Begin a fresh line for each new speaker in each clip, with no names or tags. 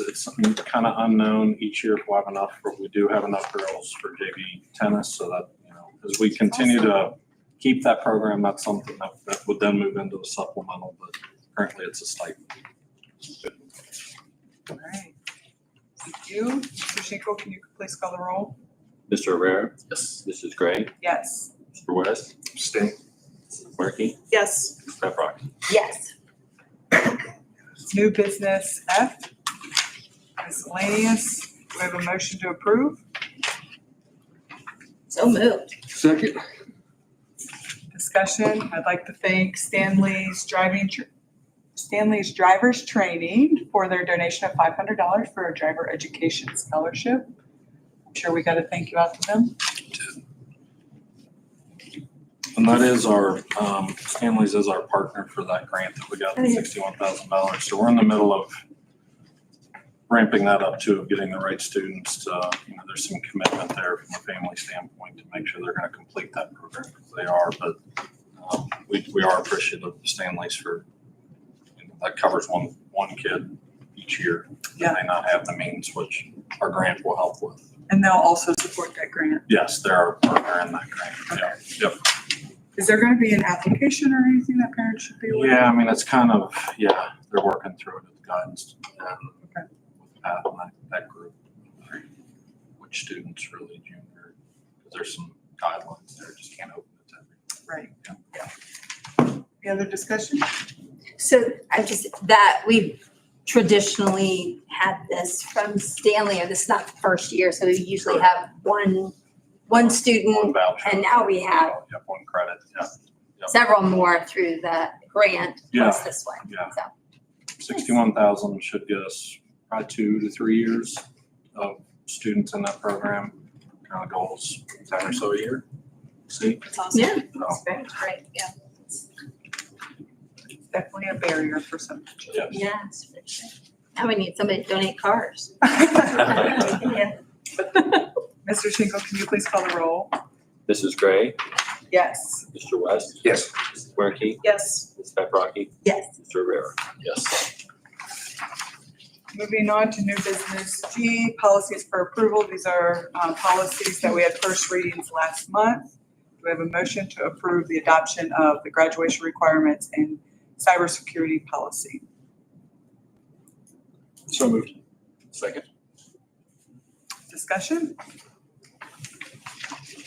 It's kind of unknown each year if we'll have enough, but we do have enough girls for JV tennis so that, you know, as we continue to keep that program, that's something that, that would then move into a supplemental, but currently it's a stipend.
All right. Thank you. Mr. Shinko, can you please call the roll?
Mr. Rivera? Yes. Mrs. Gray?
Yes.
Mr. West?
Abstain.
Mrs. Werke?
Yes.
Mrs. Pepperrock?
Yes.
New business F, miscellaneous. Do we have a motion to approve?
So moved.
Second.
Discussion. I'd like to thank Stanley's Driving, Tr- Stanley's Drivers Training for their donation of five hundred dollars for a driver education scholarship. I'm sure we got a thank you out to them.
And that is our, um, Stanley's is our partner for that grant that we got, the sixty-one thousand dollars. So we're in the middle of ramping that up too, of getting the right students, uh, you know, there's some commitment there from a family standpoint to make sure they're gonna complete that program, because they are, but um, we, we are appreciative of Stanley's for, you know, that covers one, one kid each year.
Yeah.
They may not have the means, which our grant will help with.
And they'll also support that grant.
Yes, they're our partner in that grant, yeah.
Is there going to be an application or anything that parents should be aware of?
Yeah, I mean, it's kind of, yeah, they're working through it with the guidance. um, with That, and that- that group, which students really junior, because there's some guidelines there, just can't open it to everyone.
Right. Any other discussion?
So I just, that, we traditionally had this from Stanley, and this is not the first year, so we usually have one, one
One
student,
voucher.
and now we have-
Yeah, one credit, yeah,
several more through the grant, plus
Yeah.
this one.
yeah.
So,
Sixty-one thousand should get us probably two to three years of students in that program. Kind of goals, ten or so a year, see?
That's awesome.
Yeah.
So,
Right, yeah.
It's Definitely a barrier for some.
yeah.
Yes. for sure. Now we need somebody to donate cars.
Mr. Shinko, can you please call the roll?
Mrs. Gray?
Yes.
Mr. West?
Yes.
Mrs. Werke?
Yes.
Mrs. Pepperrock?
Yes.
Mr. Rivera?
Yes.
Moving on to new business G, policies for approval. These are uh, policies that we had first readings last month. Do we have a motion to approve the adoption of the graduation requirements and cybersecurity policy?
So moved.
Second.
Discussion?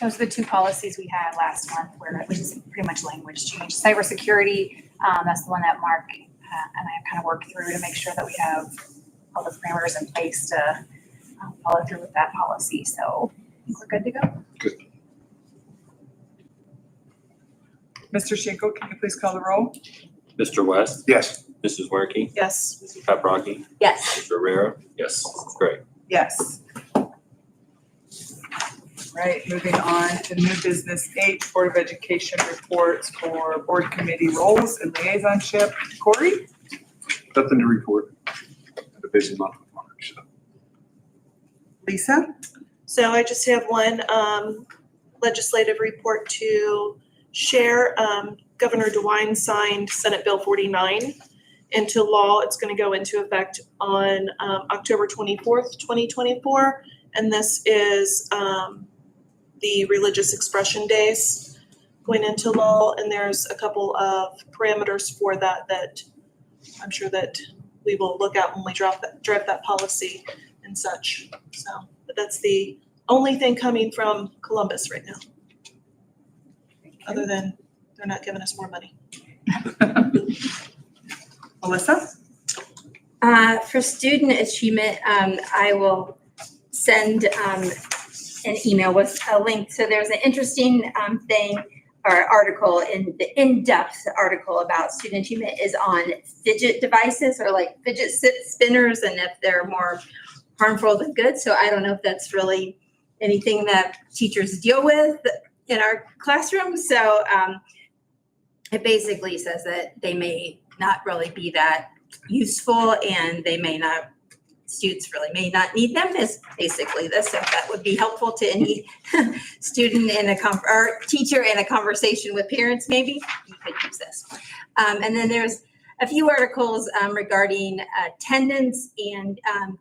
Those are the two policies we had last month where it was just pretty much language change. Cybersecurity, um, that's the one that Mark uh, and I have kind of worked through to make sure that we have all the parameters in place to um, follow through with that policy. So I think we're good to go.
Mr. Shinko, can you please call the roll?
Mr. West?
Yes.
Mrs. Werke?
Yes.
Mrs. Pepperrock?
Yes.
Mr. Rivera? Yes. Mrs. Gray?
Yes. Right, moving on to new business eight, Board of Education reports for board committee roles and liaisonship. Corey?
Nothing to report. Had a busy month with March, so.
Lisa?
So I just have one um, legislative report to share. Um, Governor DeWine signed Senate Bill 49 into law. It's going to go into effect on um, October 24th, 2024. And this is um, the religious expression days going into law. And there's a couple of parameters for that that I'm sure that we will look at when we drop that, draft that policy and such. So but that's the only thing coming from Columbus right now. Other than they're not giving us more money.
Melissa?
Uh, for student achievement, um, I will send, um, an email with a link. So there's an interesting, um, thing or article in the in-depth article about student achievement is on fidget devices or like fidget si- spinners and if they're more harmful than good. So I don't know if that's really anything that teachers deal with in our classroom. So, um, it basically says that they may not really be that useful and they may not, students really may not need them is basically this. So that would be helpful to any student in a, con- or teacher in a conversation with parents, maybe you could use this. Um, and then there's a few articles um, regarding attendance and um,